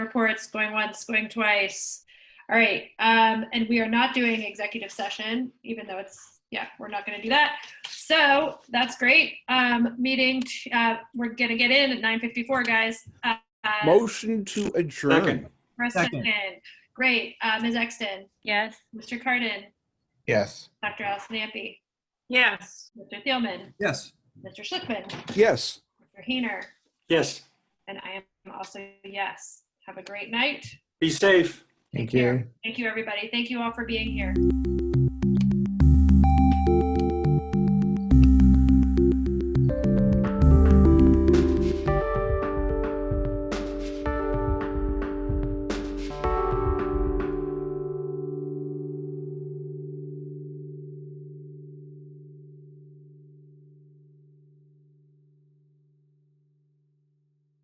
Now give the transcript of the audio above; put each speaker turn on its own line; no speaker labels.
reports, going once, going twice. All right, um, and we are not doing executive session, even though it's, yeah, we're not gonna do that. So that's great. Um, meeting, uh, we're gonna get in at nine fifty-four, guys. Uh, uh,
Motion to adjourn.
Second.
press
Second.
second. Great, uh, Ms. Exton,
Yes.
Mr. Cardin,
Yes.
Dr. Allison Ampe,
Yes.
Mr. Thielman,
Yes.
Mr. Schlickman,
Yes.
Mr. Heiner,
Yes,
and I am also a yes. Have a great night.
be safe.
Thank you. Thank you, everybody. Thank you all for being here.